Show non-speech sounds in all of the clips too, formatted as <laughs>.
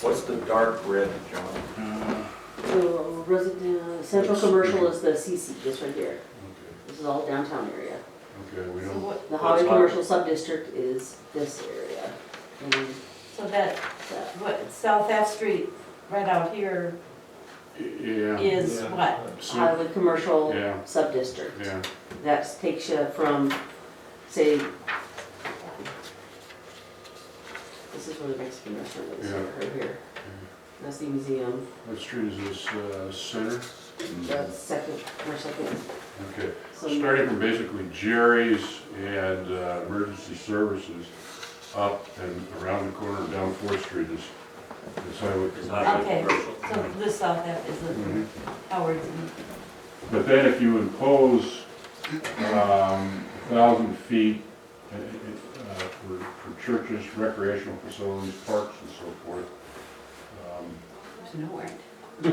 What's the dark red, John? So resident, central commercial is the CC, this right here. This is all downtown area. Okay, we So don't, what, The highway That's fine. commercial subdistrict is this area. And so that, that, what, South F Street, right out here yeah, is Yeah. what? so, highway commercial Yeah. subdistrict. yeah, That takes you from, say, this is where the Mexican restaurant is, Yeah. right here. That's the museum, what street is this, uh, center? that's second, or second. Okay, So starting from basically Jerry's and uh, Emergency Services up and around the corner down Fourth Street is, is highway It's commercial. not Okay. commercial. So this South F is Mhm. the Mm-hmm. Howard's and But then if you impose um, a thousand feet uh, uh, for for churches, recreational facilities, parks and so forth, um, there's nowhere. Yeah,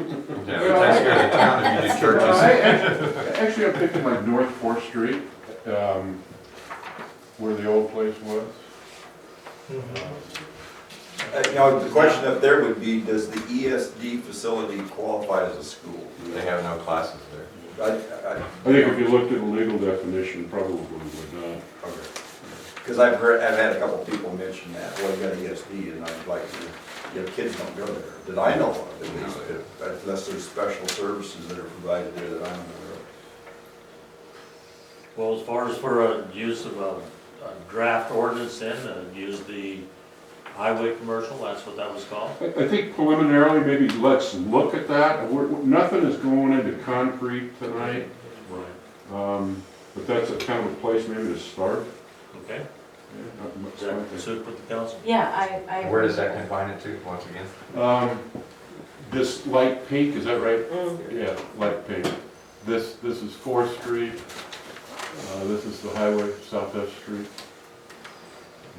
the taxpayers of town if you did churches. Well, I- I- Actually, I'm thinking like North Fourth Street, um, where the old place was. Uh, You know, the question up there would be, does the ESD facility qualify as a school? They have no classes there. I, I, I think if you looked at the legal definition, probably would not. because I've heard, I've had a couple people mention that, well, you got an ESD, and I'm like, your your kids don't go there, that I know of, at least, if- unless there's special services that are provided there that I'm aware of. Well, as far as for a use of a, a draft ordinance in, uh, use the highway commercial, that's what that was called. I, I think preliminarily, maybe let's look at that. We're, we're- nothing is going into concrete tonight, Right. um, but that's a kind of a place maybe to start. Okay, Not much is that something. suit with the council? Yeah, I, I. Where does that confine it to, once again? Um, this light pink, is that right? Mm. Yeah, light pink. This, this is Fourth Street, uh, this is the highway, South F Street,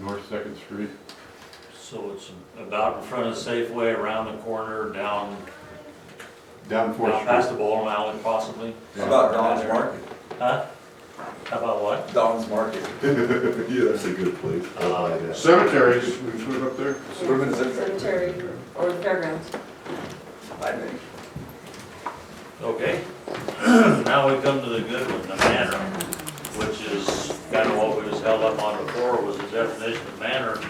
North Second Street. So it's about in front of Safeway, around the corner, down, Down Fourth down past Street. the bowling alley possibly? How about Don's Market? Huh? How about what? Don's Market. <laughs> Yeah, that's a good place. I like that. Cemeteries, we can put it up there. Women's interest, Cemetery or the fairgrounds. I think. Okay. <clears throat> Now we come to the good one, the manor, which is kind of what we was held up on before, was the definition of manor.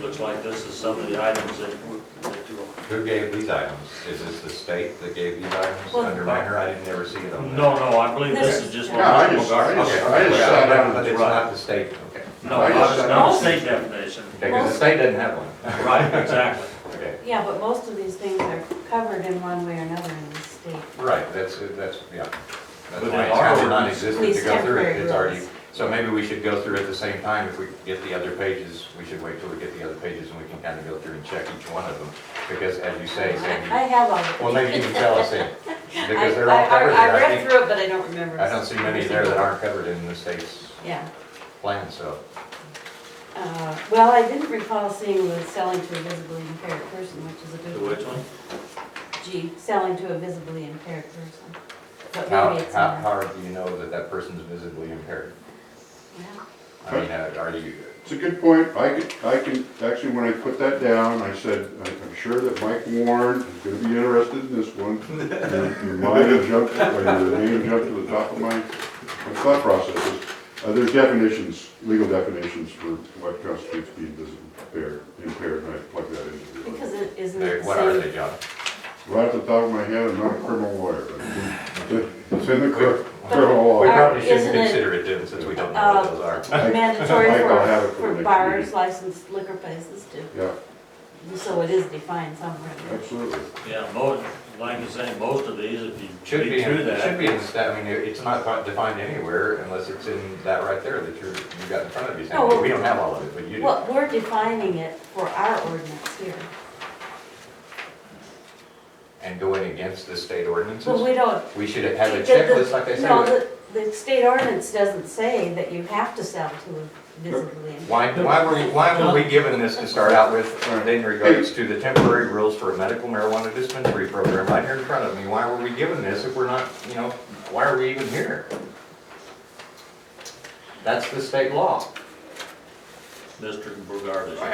Looks like this is some of the items that, w- that you Who gave these items? Is this the state that gave these items Well- under minor? I didn't ever see it on there. No, no, I believe this is just. Yeah, I just, I just, Okay, I just sat down. but it's not the state, okay. No, not a- not a state definition. Okay, because the state doesn't have one. Right, exactly. Okay, Yeah, but most of these things are covered in one way or another in the state. right, that's, that's, yeah. That's But why it's kind of in our ordinance- non-existent to These go through it, temporary it's already, rules. so maybe we should go through at the same time, if we get the other pages, we should wait till we get the other pages and we can kind of go through and check each one of them, because as you I say, Sandy, I have all of them. Well, maybe you can tell <laughs> us then, because they're I- I- all I covered here. I read think, through it, but I don't remember. I don't see many there that aren't covered in the state's Yeah. plan, so. Uh, Well, I didn't recall seeing the selling to a visibly impaired person, which is a The good one. which one? G, selling to a visibly impaired person. But How, maybe it's how, not. how do you know that that person's visibly impaired? Yeah. I mean, uh, are you, It's a good point. I can, I can, actually, when I put that down, I said, "I- I'm sure that Mike Warren is gonna be interested in this one. Your- Your mind jumped, or your name jumped to the top of my, my thought processes. Uh, there's definitions, legal definitions for what constitutes being visibly impaired, impaired, and I plug that into it. Because it isn't they- it what are the they, same. John? Right at the top of my head, I'm not a criminal lawyer, but it's in the cri- criminal We law. But- probably shouldn't Isn't it- Oh. consider it then, since we don't know what those are. I- <laughs> Mandatory Mike, I'll have it for, for the for next bars, meeting. licensed liquor places too. Yeah, So it is defined somewhere. absolutely. Yeah, most, like you say, most of these, if you Should be, read in- through it should that, be in the stat, I mean, it- it's not fi- defined anywhere unless it's in that right there that you're, you got in front of you. No, Oh, well- Sandy. We don't have all of it, but you do. Well, we're defining it for our ordinance here. And going against the state But ordinances, we don't. we should have a the- the- checklist like they say. No, the, the state ordinance doesn't say that you have to sell to a visibly impaired. Why, why were, we- why were we given this to start out with uh, in regards to the temporary rules for a medical marijuana dispensary program right here in front of me? Why were we given this if we're not, you know, why are we even here? That's the state law. Mr. Brugard is.